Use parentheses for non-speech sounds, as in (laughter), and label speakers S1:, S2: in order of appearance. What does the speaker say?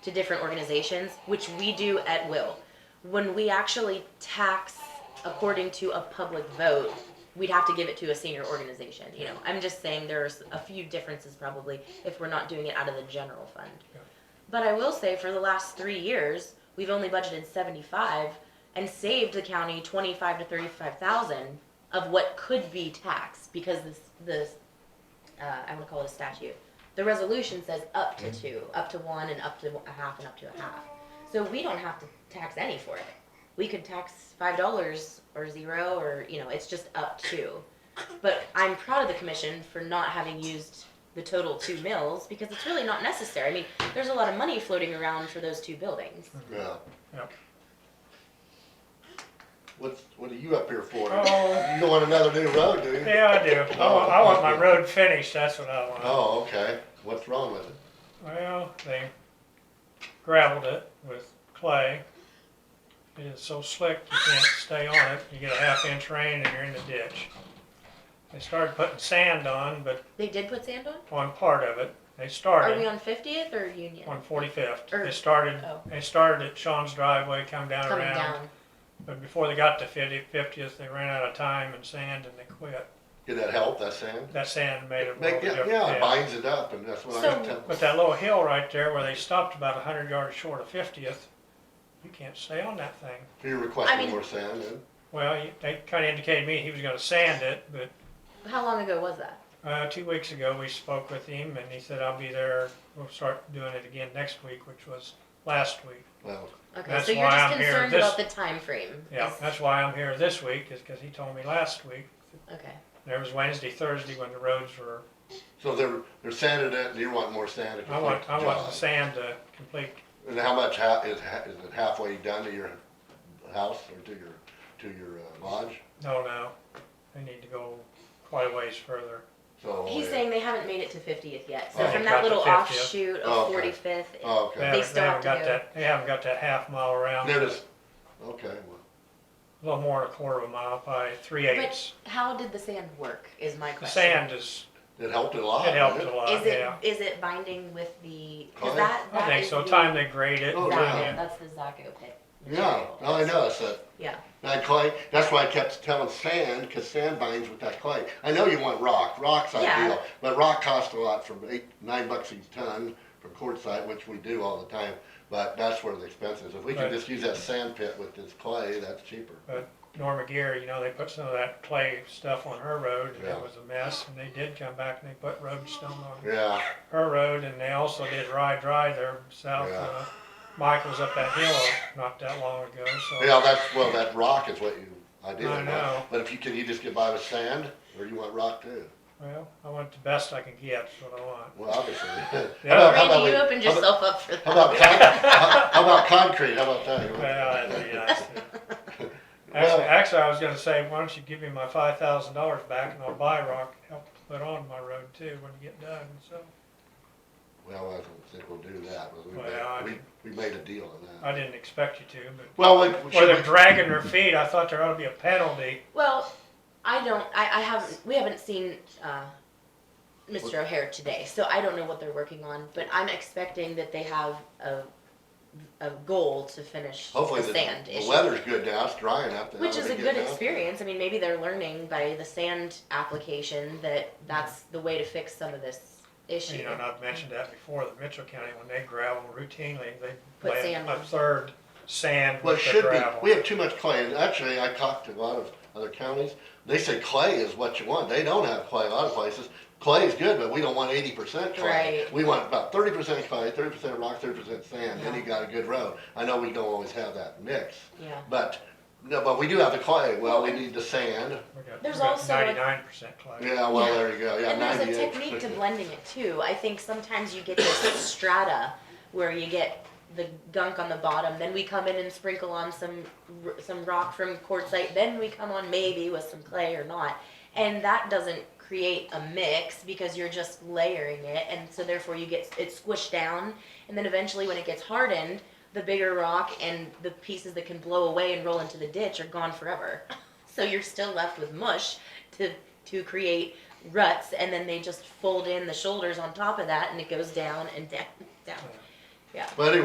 S1: to different organizations, which we do at will. When we actually tax according to a public vote, we'd have to give it to a senior organization, you know. I'm just saying there's a few differences probably if we're not doing it out of the general fund. But I will say for the last three years, we've only budgeted seventy-five and saved the county twenty-five to thirty-five thousand of what could be taxed because this, this, uh, I wanna call it a statute. The resolution says up to
S2: Mm-hmm.
S1: two, up to one and up to a half and up to a half. So we don't have to tax any for it. We could tax five dollars or zero or, you know, it's just up to. But I'm proud of the commission for not having used the total two mills because it's really not necessary. I mean, there's a lot of money floating around for those two buildings.
S2: Mm-hmm.
S3: Yeah.
S2: Yep.
S3: What's, what are you up here for?
S2: Oh.
S3: You don't want another new road, do you?
S2: Yeah, I do. I want, I want my road finished, that's what I want.
S3: Oh, okay. What's wrong with it?
S2: Well, they gravelled it with clay. It is so slick you can't stay on it. You get a half inch rain and you're in the ditch. They started putting sand on, but
S1: They did put sand on?
S2: on part of it, they
S1: Are we
S2: started
S1: on 50th or Union?
S2: on forty-fifth.
S1: Or-
S2: They started,
S1: oh.
S2: they started at Sean's driveway, come down
S1: Coming
S2: around.
S1: down.
S2: But before they got to fifty, fiftieth, they ran out of time and sand and they quit.
S3: Did that help, that sand?
S2: That sand made a
S3: Make-
S2: world
S3: Yeah,
S2: of
S3: yeah,
S2: difference.
S3: it binds it up and that's what I'm
S1: So-
S3: telling.
S2: But that little hill right there where they stopped about a hundred yards short of fiftieth, you can't stay on that thing.
S3: You're
S1: I
S3: requesting
S1: mean-
S3: more sand then?
S2: Well, you- they kinda indicated to me he was gonna sand it, but,
S1: How long ago was that?
S2: uh, two weeks ago, we spoke with him and he said, I'll be there, we'll start doing it again next week, which was last week.
S3: Well,
S1: Okay,
S2: That's
S1: so you're
S2: why
S1: just
S2: I'm here.
S1: concerned
S2: This-
S1: about the time frame.
S2: Yeah,
S1: Is-
S2: that's why I'm here this week, is cause he told me last week,
S1: Okay.
S2: there was Wednesday, Thursday when the roads were,
S3: so they're, they're sanding it and you want more sand to
S2: I
S3: complete
S2: want,
S3: the
S2: I want the
S3: job.
S2: sand to complete,
S3: And how much, ha- is, ha- is it halfway done to your house or to your, to your uh, lodge?
S2: no, no, they need to go quite a ways further.
S3: So.
S1: He's
S3: uh,
S1: saying they haven't made it to 50th yet. So
S3: Oh.
S1: from
S2: They've
S1: that
S2: got to
S1: little
S2: 50th.
S1: offshoot
S3: Oh,
S1: of
S3: okay.
S1: 45th.
S3: Oh,
S2: They
S3: okay.
S2: haven't,
S1: still
S2: they
S1: have
S2: haven't
S1: to
S2: got
S1: go.
S2: that, they haven't got that half mile around.
S3: They're just, okay, well,
S2: A little more than a quarter of a mile, probably three
S1: But
S2: eighths.
S1: how did the sand work? Is my
S2: The
S1: question.
S2: sand is,
S3: it helped a lot.
S2: it helped
S3: didn't
S2: a
S3: it?
S2: lot,
S1: Is it
S2: yeah.
S1: is it binding with the? 'cause
S3: Oh,
S1: that,
S2: I
S1: that
S2: think
S1: is
S2: so,
S1: the-
S2: time they grade it,
S3: Oh,
S1: Zacco.
S3: yeah.
S2: time
S1: That's the Zacco pit.
S3: Yeah,
S1: material.
S3: no, I know, it's a,
S1: Yeah.
S3: That clay, that's why I kept telling sand, cause sand binds with that clay. I know you want rock, rock's
S1: Yeah.
S3: ideal, but rock costs a lot from eight, nine bucks a ton from quartzite, which we do all the time, but that's where the expense is. If we
S2: Right.
S3: could just use that sand pit with this clay, that's cheaper.
S2: Norma Gear, you know, they put some of that clay stuff on her road, and
S3: Yeah.
S2: it was a mess, and they did come back and they put road stone on
S3: Yeah,
S2: her road, and they also did Rye Dry there south,
S3: Yeah.
S2: uh, Michael's up that hill not that long ago, so.
S3: yeah, that's, well, that rock is what you ideally
S2: I know.
S3: want, but if you, can you just get by with sand, or you want rock too?
S2: Well, I want the best I can get, is what I want.
S3: Well,
S2: (laughs)
S3: obviously. How
S2: Yeah.
S3: about- how about
S1: Randy, you
S3: we-
S1: opened
S3: how about-
S1: yourself up for
S3: (laughs)
S1: that.
S3: How about, con- how how about concrete, how about that?
S2: Well, that'd be nice too.
S3: Well-
S2: Actually, actually, I was gonna say, why don't you give me my five thousand dollars back and I'll buy rock and help put on my road too when you get done, so.
S3: Well, I don't think we'll do that, but we
S2: Well, I-
S3: made, we, we made a deal on that.
S2: I didn't expect you to,
S3: Well, we- we
S2: but, or they're
S3: should,
S2: dragging their feet, I thought there ought to be a penalty.
S1: Well, I don't. I, I haven't. We haven't seen uh, Mr. O'Hare today, so I don't know what they're working on. But I'm expecting that they have a a goal to finish
S3: hopefully
S1: the
S3: the,
S1: sand
S3: the
S1: issue.
S3: weather's good now, it's dry enough. that
S1: Which
S3: ought
S1: is
S3: to
S1: a
S3: be
S1: good
S3: enough.
S1: experience. I mean, maybe they're learning by the sand application that that's the way to fix some of this issue.
S2: You know, and I've mentioned that before, that Mitchell County, when they gravel routinely, they
S1: Put
S2: lay
S1: sand
S2: a
S1: on.
S2: third sand
S3: Well, it
S2: with the
S3: should be, we
S2: gravel.
S3: have too much clay, and actually, I talked to a lot of other counties, they say clay is what you want, they don't have clay a lot of places. Clay is good, but we don't want eighty percent clay.
S1: Right.
S3: We want about thirty percent clay, thirty percent rock, thirty percent sand, then
S1: Yeah.
S3: you got a good road. I know we don't always have that mix,
S1: Yeah.
S3: but, no, but we do have the clay, well, we need the sand,
S2: We got- we
S1: There's
S2: got
S1: also a-
S2: Ninety-nine percent clay.
S3: yeah, well, there you go, yeah,
S1: And there's a
S3: 98.
S1: technique to blending it too. I think sometimes you get this (coughs) strata where you get the gunk on the bottom, then we come in and sprinkle on some r- some rock from quartzite, then we come on maybe with some clay or not. And that doesn't create a mix because you're just layering it and so therefore you get it squished down and then eventually when it gets hardened, the bigger rock and the pieces that can blow away and roll into the ditch are gone forever. (laughs) So you're still left with mush to to create ruts and then they just fold in the shoulders on top of that and (laughs) it goes down and down down.
S2: Yeah.
S3: But anyway,